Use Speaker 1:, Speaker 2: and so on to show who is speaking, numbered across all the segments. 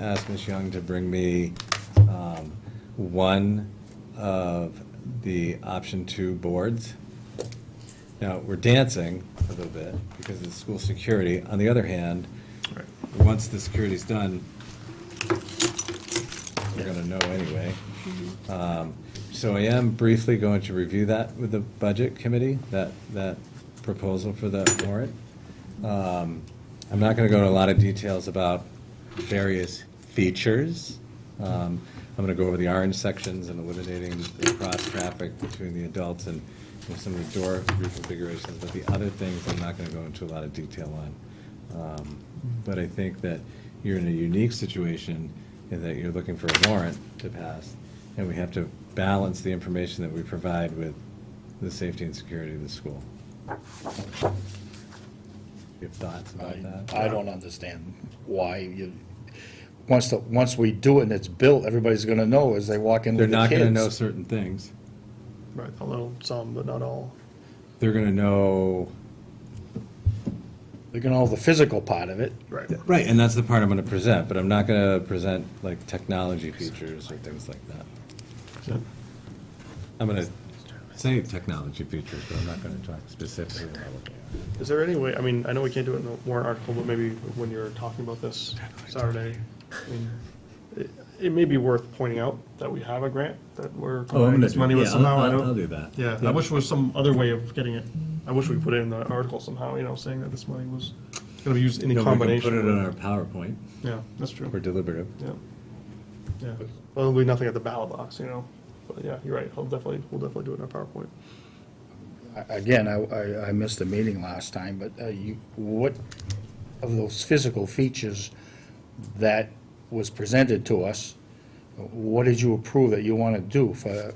Speaker 1: ask Ms. Young to bring me um, one of the option two boards. Now, we're dancing a little bit because it's school security. On the other hand,
Speaker 2: Right.
Speaker 1: once the security's done, we're gonna know anyway. Um, So I am briefly going to review that with the budget committee, that, that proposal for that warrant. Um, I'm not gonna go into a lot of details about various features. Um, I'm gonna go over the orange sections and eliminating the cross-traffic between the adults and you know, some of the door reconfigurations, but the other things I'm not gonna go into a lot of detail on. Um, But I think that you're in a unique situation in that you're looking for a warrant to pass, and we have to balance the information that we provide with the safety and security of the school. You have thoughts about that?
Speaker 3: I I don't understand why you, once, the once we do it and it's built, everybody's gonna know as they walk in
Speaker 1: They're
Speaker 3: with the
Speaker 1: not
Speaker 3: kids.
Speaker 1: gonna know certain things.
Speaker 2: Right, although some, but not all.
Speaker 1: They're gonna know,
Speaker 3: They're gonna know the physical part of it.
Speaker 2: Right.
Speaker 1: right, and that's the part I'm gonna present, but I'm not gonna present like technology features or things like that. I'm gonna say technology features, but I'm not gonna talk specifically about what they are.
Speaker 2: Is there any way, I mean, I know we can't do it in a warrant article, but maybe when you're talking about this Saturday, I mean, it- it may be worth pointing out that we have a grant that
Speaker 1: Oh,
Speaker 2: we're providing this money with somehow. I
Speaker 1: I'll, I'll
Speaker 2: don't-
Speaker 1: do that.
Speaker 2: Yeah, I wish there was some other way of getting it. I wish we put it in the article somehow, you know, saying that this money was gonna be used in a
Speaker 1: No, we can
Speaker 2: combination.
Speaker 1: put it
Speaker 2: with-
Speaker 1: on our PowerPoint
Speaker 2: Yeah, that's true.
Speaker 1: or deliberative.
Speaker 2: Yeah. Yeah. Well, there'll be nothing at the ballot box, you know. But yeah, you're right. I'll definitely, we'll definitely do it in our PowerPoint.
Speaker 3: I- Again, I, I, I missed the meeting last time, but uh, you, what of those physical features that was presented to us, what did you approve that you wanna do for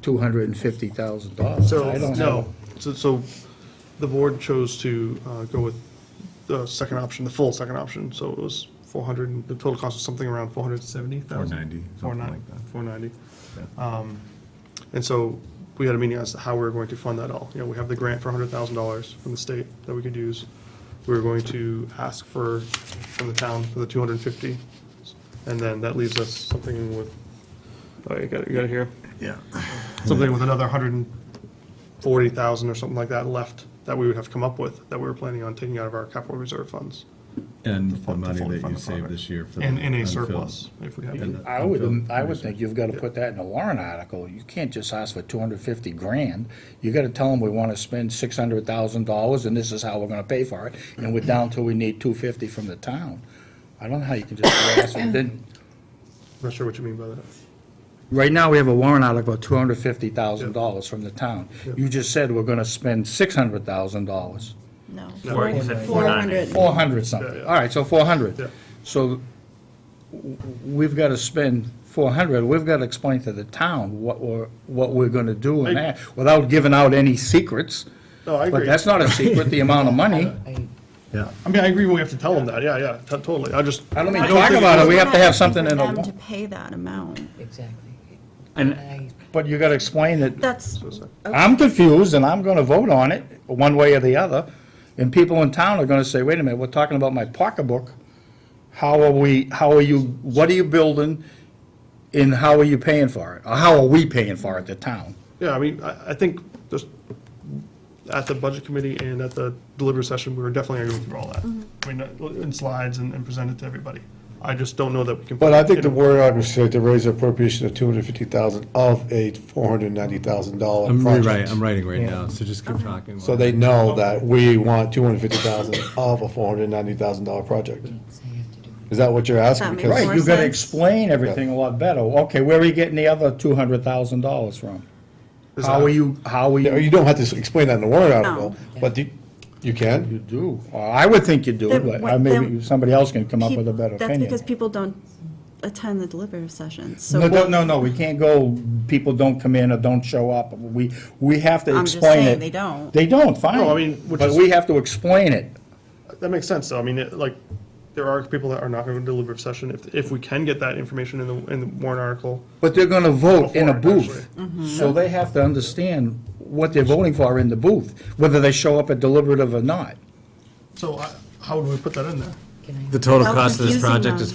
Speaker 3: two hundred and fifty thousand dollars?
Speaker 2: So, no, so, so the board chose to uh, go with the second option, the full second option. So it was 400, and the total cost was something around 470,000.
Speaker 1: 490, something like that.
Speaker 2: 490. Um, And so we had a meeting as to how we were going to fund that all. You know, we have the grant for hundred thousand dollars from the state that we could use. We were going to ask for, from the town, for the two hundred and fifty. And then that leaves us something with, oh, you got it, you got it here?
Speaker 3: Yeah.
Speaker 2: Something with another hundred and forty thousand or something like that left that we would have come up with, that we were planning on taking out of our capital reserve funds.
Speaker 1: And
Speaker 2: to
Speaker 1: the money
Speaker 2: fully
Speaker 1: that
Speaker 2: fund
Speaker 1: you
Speaker 2: the
Speaker 1: saved
Speaker 2: project.
Speaker 1: this year for. the
Speaker 2: And, and a
Speaker 1: unfilled.
Speaker 2: surplus, if we have
Speaker 1: And
Speaker 2: it.
Speaker 1: the
Speaker 3: I would,
Speaker 1: unfilled
Speaker 3: I would
Speaker 1: position.
Speaker 3: think you've got to put that in a warrant article. You can't just ask for two hundred fifty grand. You got to tell them we want to spend six hundred thousand dollars and this is how we're going to pay for it, and we're down till we need two fifty from the town. I don't know how you can just ask them. Then,
Speaker 2: Not sure what you mean by that.
Speaker 3: right now, we have a warrant article of two hundred fifty thousand dollars from the town. You just said we're going to spend six hundred thousand dollars,
Speaker 4: No.
Speaker 2: No,
Speaker 4: Four
Speaker 2: you
Speaker 4: hundred.
Speaker 5: said
Speaker 4: Four hundred.
Speaker 3: four hundred
Speaker 2: Yeah,
Speaker 3: something.
Speaker 2: yeah.
Speaker 3: All right, so four hundred.
Speaker 2: Yeah.
Speaker 3: So w- we've got to spend 400, we've got to explain to the town what we're, what we're going to do and
Speaker 2: I-
Speaker 3: that, without giving out any secrets.
Speaker 2: No, I
Speaker 3: But
Speaker 2: agree.
Speaker 3: that's not a secret, the amount of money.
Speaker 1: Yeah.
Speaker 2: I mean, I agree when we have to tell them that, yeah, yeah, t- totally, I just.
Speaker 3: I don't mean
Speaker 2: I
Speaker 3: to
Speaker 2: don't
Speaker 3: talk
Speaker 2: think
Speaker 3: about
Speaker 2: it's-
Speaker 3: it, we have to have something in
Speaker 4: For them
Speaker 3: a,
Speaker 4: to pay that amount.
Speaker 5: Exactly.
Speaker 3: and,
Speaker 5: I,
Speaker 3: but you got to explain it.
Speaker 4: That's,
Speaker 3: I'm confused, and I'm going to vote on it, one way or the other, and people in town are going to say, wait a minute, we're talking about my pocketbook. How are we, how are you, what are you building, and how are you paying for it? Or how are we paying for it, the town?
Speaker 2: Yeah, I mean, I, I think just at the budget committee and at the deliberative session, we were definitely going to go through all that. I mean, uh, in slides and, and present it to everybody. I just don't know that we can. put
Speaker 6: But I
Speaker 2: it
Speaker 6: think
Speaker 2: in
Speaker 6: the
Speaker 2: a-
Speaker 6: word article said to raise appropriation of two hundred fifty thousand of a four hundred ninety thousand dollar
Speaker 1: I'm rewriting,
Speaker 6: project.
Speaker 1: I'm writing right now, so just keep talking.
Speaker 6: So they know that we want two hundred fifty thousand of a four hundred ninety thousand dollar project.
Speaker 5: so I have to do it.
Speaker 6: Is that what you're asking?
Speaker 4: That makes
Speaker 6: Because
Speaker 4: more
Speaker 3: Right, you gotta
Speaker 4: sense.
Speaker 3: explain everything a lot better. Okay, where are you getting the other two hundred thousand dollars from?
Speaker 2: Is
Speaker 3: How
Speaker 2: that-
Speaker 3: are you, how are
Speaker 6: You know,
Speaker 3: you,
Speaker 6: you don't have to explain that in the warrant article, but you, you
Speaker 3: you
Speaker 6: can.
Speaker 3: do? Uh, I would think you do,
Speaker 4: Then
Speaker 3: but
Speaker 4: what-
Speaker 3: uh, maybe
Speaker 4: then-
Speaker 3: somebody else can come up
Speaker 4: peop-
Speaker 3: with a better
Speaker 4: that's
Speaker 3: opinion.
Speaker 4: because people don't attend the deliberative sessions, so.
Speaker 3: No, no,
Speaker 4: we'll-
Speaker 3: no, no, we can't go, people don't come in or don't show up. We, we have to
Speaker 4: I'm just
Speaker 3: explain it.
Speaker 4: saying they don't.
Speaker 3: They don't, fine.
Speaker 2: No, I mean, which
Speaker 3: But
Speaker 2: is-
Speaker 3: we have to explain it.
Speaker 2: That makes sense, though. I mean, it- like, there are people that are not going to deliberative session. If, if we can get that information in the, in the warrant article,
Speaker 3: But they're gonna vote in a
Speaker 2: Before it,
Speaker 3: booth.
Speaker 4: Mm-hmm.
Speaker 3: So they have to understand what they're voting for in the booth, whether they show up at deliberative or not.
Speaker 2: so I, how would we put that in there?
Speaker 5: Can I-
Speaker 1: The total
Speaker 4: How
Speaker 1: cost of this
Speaker 4: confusing
Speaker 1: project
Speaker 4: them.
Speaker 1: is